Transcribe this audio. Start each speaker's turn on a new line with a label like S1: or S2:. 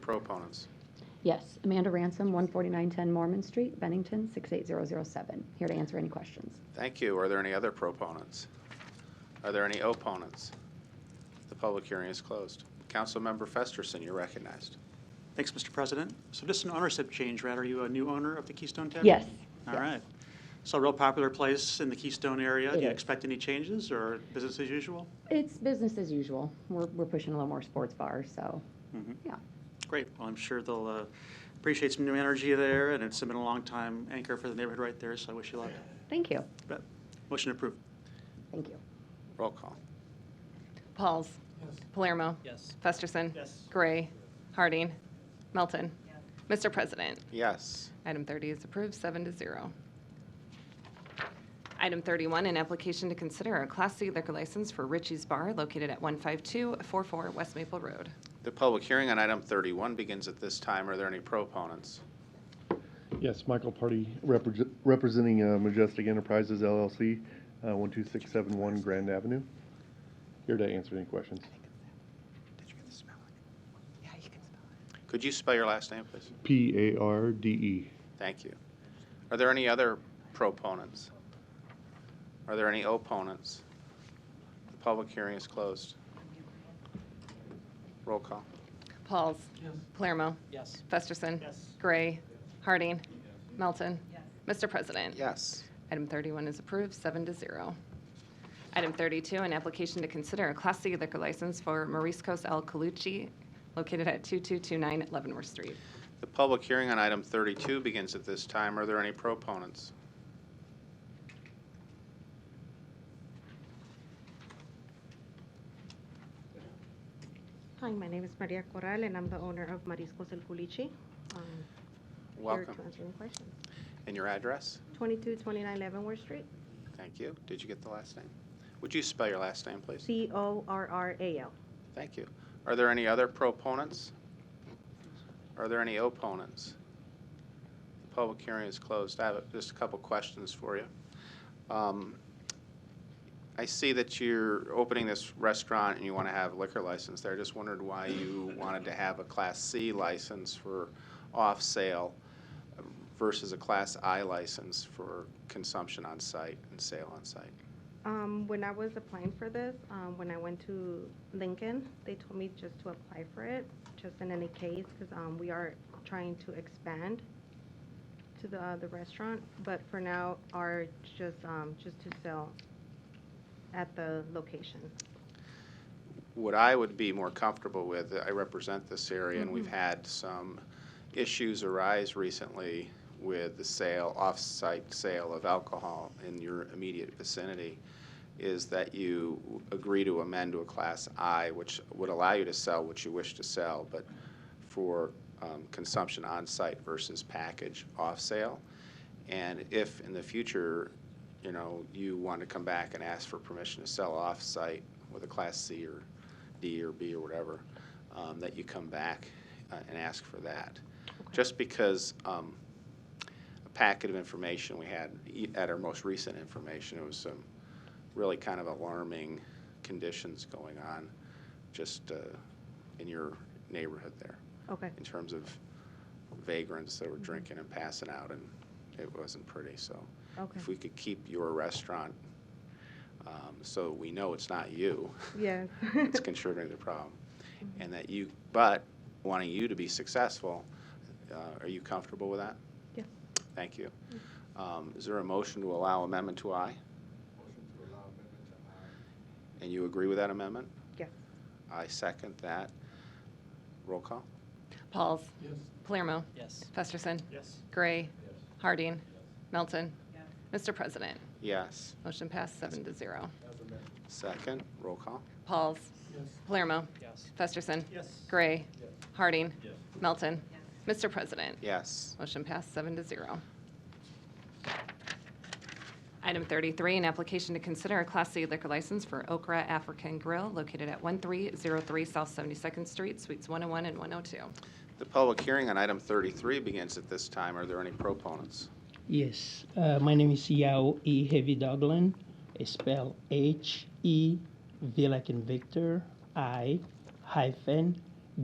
S1: Proponents.
S2: Yes, Amanda Ransom, 14910 Mormon Street, Bennington, 68007. Here to answer any questions.
S1: Thank you. Are there any other proponents? Are there any opponents? The public hearing is closed. Councilmember Festerson, you're recognized.
S3: Thanks, Mr. President. So just an ownership change, right? Are you a new owner of the Keystone Tavern?
S2: Yes.
S3: All
S2: yes.
S3: right. So a real popular place in the Keystone area. Do
S2: It
S3: you
S2: is.
S3: expect any changes or business as usual?
S2: It's business as usual. We're we're pushing a little more sports bar, so,
S3: Mhm.
S2: yeah.
S3: Great. Well, I'm sure they'll uh, appreciate some new energy there, and it's been a long time anchor for the neighborhood right there, so I wish you luck.
S2: Thank you.
S3: But Motion approved.
S2: Thank you.
S1: Roll call.
S4: Pauls. Palermo.
S3: Yes.
S4: Festerson.
S3: Yes.
S4: Gray. Harding. Melton. Mr. President,
S1: Yes.
S4: item 30 is approved, seven to zero. Item 31, an application to consider a Class C liquor license for Richie's Bar located at 15244 West Maple Road.
S1: The public hearing on item 31 begins at this time. Are there any proponents?
S5: Yes, Michael Party, repre- representing uh, Majestic Enterprises LLC, uh, 12671 Grand Avenue. Here to answer any questions.
S4: Yeah, you can spell it.
S1: Could you spell your last name, please?
S5: P-A-R-D-E.
S1: Thank you. Are there any other proponents? Are there any opponents? The public hearing is closed. Roll call.
S4: Pauls. Palermo.
S3: Yes.
S4: Festerson.
S3: Yes.
S4: Gray. Harding. Melton. Mr. President.
S1: Yes.
S4: Item 31 is approved, seven to zero. Item 32, an application to consider a Class C liquor license for Mariscos El Calucci located at 2229 Leavenworth Street.
S1: The public hearing on item 32 begins at this time. Are there any proponents?
S6: Hi, my name is Maria Corral, and I'm the owner of Mariscos El Culichi. Um,
S1: Welcome.
S6: Here to answer any questions.
S1: And your address?
S6: 2229 Leavenworth Street,
S1: Thank you. Did you get the last name? Would you spell your last name, please?
S6: C-O-R-R-A-L.
S1: Thank you. Are there any other proponents? Are there any opponents? The public hearing is closed. I have just a couple questions for you. Um, I see that you're opening this restaurant and you want to have a liquor license there. I just wondered why you wanted to have a Class C license for off-sale versus a Class I license for consumption on-site and sale on-site.
S6: Um, When I was applying for this, um, when I went to Lincoln, they told me just to apply for it, just in any case, because we are trying to expand to the uh, the restaurant, but for now, are just, um, just to sell at the location.
S1: what I would be more comfortable with, I represent this area, and we've had some issues arise recently with the sale, off-site sale of alcohol in your immediate vicinity, is that you agree to amend to a Class I, which would allow you to sell what you wish to sell, but for um, consumption on-site versus package off-sale. And if in the future, you know, you want to come back and ask for permission to sell off-site with a Class C or D or B or whatever, um, that you come back uh, and ask for that. Just because um, a packet of information we had e- at our most recent information, it was some really kind of alarming conditions going on just uh, in your neighborhood there
S6: Okay.
S1: in terms of vagrants that were drinking and passing out, and it wasn't pretty, so.
S6: Okay.
S1: If we could keep your restaurant, um, so we know it's not you,
S6: Yes.
S1: it's contributing to the problem, and that you, but wanting you to be successful, uh, are you comfortable with that?
S6: Yes.
S1: Thank you. Um, Is there a motion to allow amendment to I? Motion to allow amendment to I. And you agree with that amendment?
S6: Yes.
S1: I second that. Roll call?
S4: Pauls. Palermo.
S3: Yes.
S4: Festerson.
S3: Yes.
S4: Gray. Harding. Melton. Mr. President,
S1: Yes.
S4: motion passed, seven to zero.
S1: Second, roll call.
S4: Pauls. Palermo.
S3: Yes.
S4: Festerson.
S3: Yes.
S4: Gray. Harding. Melton. Mr. President,
S1: Yes.
S4: Motion passed, seven to zero. Item 33, an application to consider a Class C liquor license for Okra African Grill located at 1303 South 72nd Street, Suites 101 and 102.
S1: The public hearing on item 33 begins at this time. Are there any proponents?
S7: Yes, uh, my name is Yao E. Heavy Dogland. It's spelled H E V like in Victor I hyphen